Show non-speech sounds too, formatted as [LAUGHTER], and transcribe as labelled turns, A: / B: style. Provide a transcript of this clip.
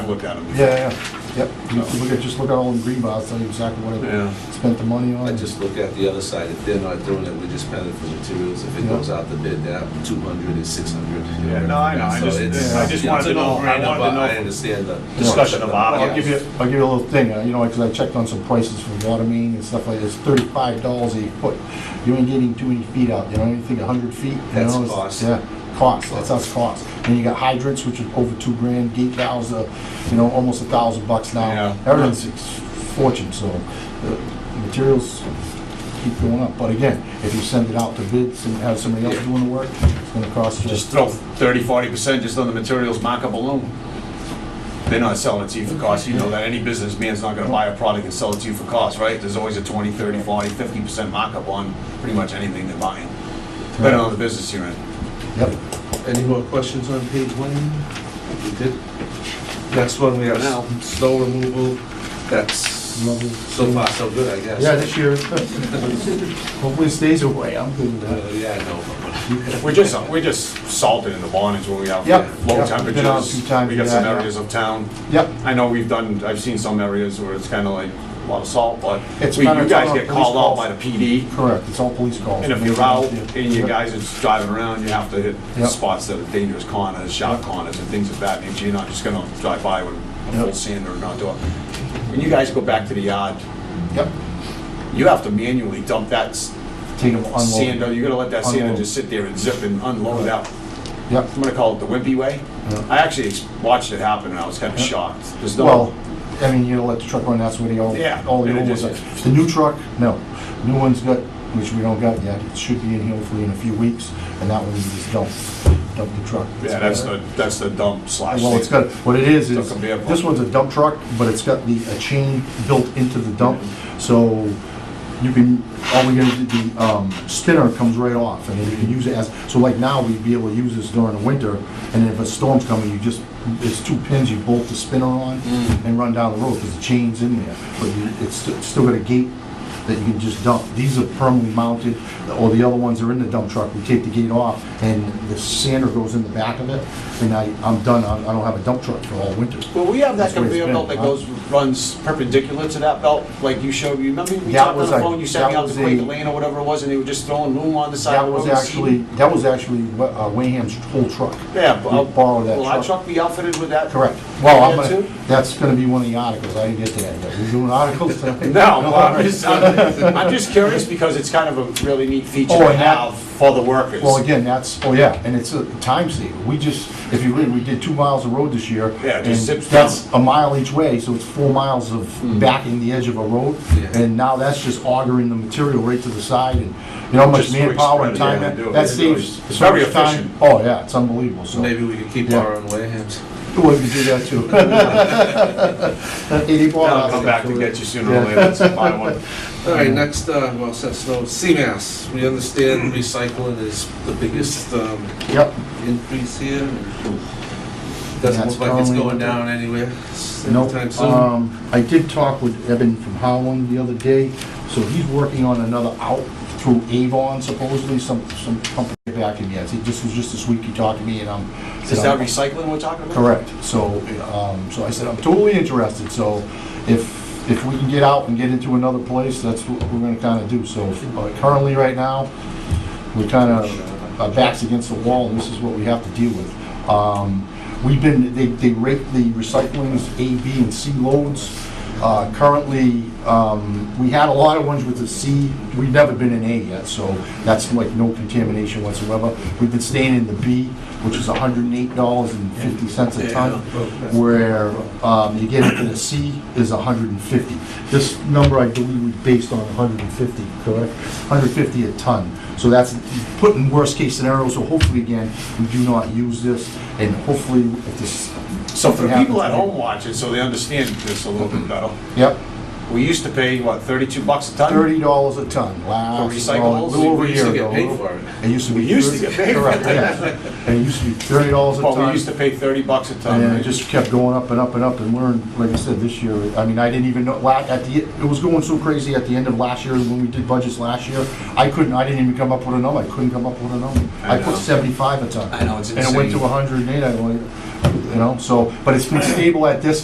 A: I've looked at them before.
B: Yeah, yeah, yep. You can Look at, just look at all the green bars, tell you exactly what
A: Yeah.
B: I spent the money on.
C: I just look at the other side, if they're not doing it, we just pay it for materials, if it
B: Yeah.
C: goes out the bid, they're up two hundred and six hundred.
A: Yeah, no, I know. I just-
B: I
A: just wanted to know- I wanted to know
C: I understand the.
A: discussion about it.
B: I'll give you, I'll give you a little thing, uh, you know, because I checked on some prices for water main and stuff like this, thirty-five dollars a foot. You ain't getting too many feet out, you know, you think a hundred feet, you know?
C: That's
B: it's-
C: cost.
B: Yeah, cost, that's us cost. And you got hydrants, which are over two grand, gate valves, uh, you know, almost a thousand bucks
A: Yeah.
B: now. Everything's a fortune, so the materials keep going up. But again, if you send it out to bids and have somebody else doing the work, it's gonna cost you.
A: Just throw 30, 40% just on the materials markup alone. They're not selling it to you for cost. You know that any businessman's not gonna buy a product and sell it to you for cost, right? There's always a 20, 30, 40, 50% markup on pretty much anything they're buying, depending on the business you're in.
B: Yep.
C: Any more questions on page one? We did. Next one, we have
A: Now.
C: snow removal, that's
B: Level.
C: so far so good, I guess.
B: Yeah, this [LAUGHS] year. Hopefully it stays away, I'm good with
C: Uh,
B: that.
C: Yeah, I know.
A: We're just, we're just salted in the bonnets when we have
B: Yep.
A: low
B: Yep. Been out a few
A: temperatures.
B: times
A: We got
B: with
A: some
B: that, yeah.
A: areas of town.
B: Yep,
A: I know we've done, I've seen some areas where it's kinda like a lot of salt, but
B: It's
A: we-
B: better
A: you
B: to
A: guys
B: have
A: get
B: police
A: called out
B: calls.
A: by the PD.
B: correct, it's all police calls.
A: And if you're out
B: Yeah.
A: and you guys are just driving around, you have to hit
B: Yep.
A: spots that are dangerous corners, sharp corners and things of that nature. You're not just gonna drive by with a full
B: Yep.
A: sander and not do it. When you guys go back to the yard,
B: Yep,
A: you have to manually dump that s-
B: take them unload.
A: sander, you gotta let that sander
B: Unload.
A: just sit there and zip and unload out.
B: Yep,
A: I'm gonna call it the wimpy way.
B: Yeah.
A: I actually ex- watched it happen and I was kinda
B: Yeah.
A: shocked. There's
B: well,
A: no,
B: I mean, you gotta let the truck run, that's where the all,
A: Yeah,
B: all the
A: and it
B: old ones
A: just-
B: are. The new truck, no, new one's got, which we don't got yet, it should be in here hopefully in a few weeks, and that one we just dump, dump the truck.
A: yeah, that's the, that's the dump slash.
B: Well, it's
A: sander.
B: got, what it is,
A: It's
B: is,
A: a vehicle.
B: this one's a dump truck, but it's got the, a chain built into the dump, so you can, all we gotta do, the, um, spinner comes right off, and then you can use it as, so like now, we'd be able to use this during the winter, and if a storm's coming, you just, it's two pins, you bolt the spinner on and run down the road, because the chain's in there, but you- it's, st- it's still got a gate that you can just dump. These are permanently mounted, or the other ones are in the dump truck, we take the gate off, and the sander goes in the back of it, and I, I'm done, I I don't have a dump truck for all winter.
A: Well, we have that
B: That's where it's
A: conveyor
B: been,
A: belt that
B: huh?
A: goes, runs perpendicular to that belt, like you showed, you remember, we
B: That
A: talked on
B: was
A: the
B: a-
A: phone, you sent me
B: that
A: out to
B: was
A: Quaker
B: a-
A: Lane or whatever it was, and they were just throwing loom on the side of
B: That
A: the road.
B: was
A: and seeding.
B: actually, that was actually Wa- uh, Wayham's whole truck.
A: Yeah,
B: We
A: but I'll-
B: borrowed that
A: Will our
B: truck.
A: truck be outfitted with that?
B: Correct. Well, I'm
A: Yeah,
B: gonna,
A: too?
B: that's gonna be one of the articles, I didn't get to that yet. We're
A: [LAUGHS]
B: doing articles tonight?
A: [LAUGHS]
B: [LAUGHS]
A: No, well, I'm just, I'm I'm just curious because it's kind of a really neat feature
B: Oh,
A: to
B: and that-
A: have for the workers.
B: Well, again, that's, oh yeah, and it's a time saver. We just, if you read, we did two miles of road this year.
A: Yeah, it just Hmm.
B: and
A: zips
B: That's a mile each way, so it's four miles of backing the edge of a road.
C: Yeah.
B: And now that's just augering the material right to the side and, you know, how much
A: Just quick
B: manpower and
A: spread,
B: time,
A: yeah, they do it.
B: that
A: They do it.
B: saves.
A: It's
B: so
A: very
B: much time.
A: efficient.
B: Oh, yeah, it's unbelievable, so.
C: Maybe we could keep
B: Yeah.
C: our own Wayhams.
B: Well, you do
A: [LAUGHS]
B: that too. [LAUGHS] Eighty four
A: I'll
B: hours.
A: come back to get you sooner or later, so buy one.
C: All right, next, uh, well, set snow, CMAS, we understand recycling is the biggest, um,
B: Yep,
C: increase here. Doesn't
B: That's
C: look like it's
B: currently-
C: going down anywhere anytime
B: nope.
C: soon.
B: Um, I did talk with Evan from Howland the other day, so he's working on another out through Avon supposedly, some, some company back in, yes, he just, was just this week he talked to me and I'm.
A: [LAUGHS] Is that recycling we're talking about?
B: Correct, so, um, so I said, I'm totally interested, so if, if we can get out and get into another place, that's what we're gonna kinda do, so uh, currently, right now, we're kinda, our backs against the wall, and this is what we have to deal with. Um, we've been, they, they rate the recyclings A, B, and C loads. Uh, currently, um, we had a lot of ones with the C, we've never been in A yet, so that's like no contamination whatsoever. We've been staying in the B, which is hundred and eight dollars and fifty cents a ton, where, um, you get into the C is hundred and fifty. This number, I believe, we based on hundred and fifty, correct? Hundred fifty a ton, so that's put in worst-case scenario, so hopefully, again, we do not use this, and hopefully, if this,
A: So for
B: something
A: the
B: happens.
A: people at home watching, so they understand this a little bit better,
B: Yep,
A: we used to pay, what, 32 bucks a ton?
B: thirty dollars a ton, last, well, a
A: recyclables?
B: little over a
C: We used
B: year
C: to
B: ago.
C: get paid for it.
B: It used to be.
A: We used to get paid for
B: Correct, yeah. And it used to be thirty dollars a
A: But we
B: ton,
A: used to pay 30 bucks a ton.
B: and then it just kept going up and up and up, and we're, in- like I said, this year, I mean, I didn't even know, la, at the, it was going so crazy at the end of last year, when we did budgets last year, I couldn't, I didn't even come up with a number, I couldn't come up with a number.
A: I
B: I
A: know.
B: put seventy-five a ton.
A: I know, it's
B: And it went
A: insane.
B: to hundred and eight, I went, you know, so, but it's been stable at this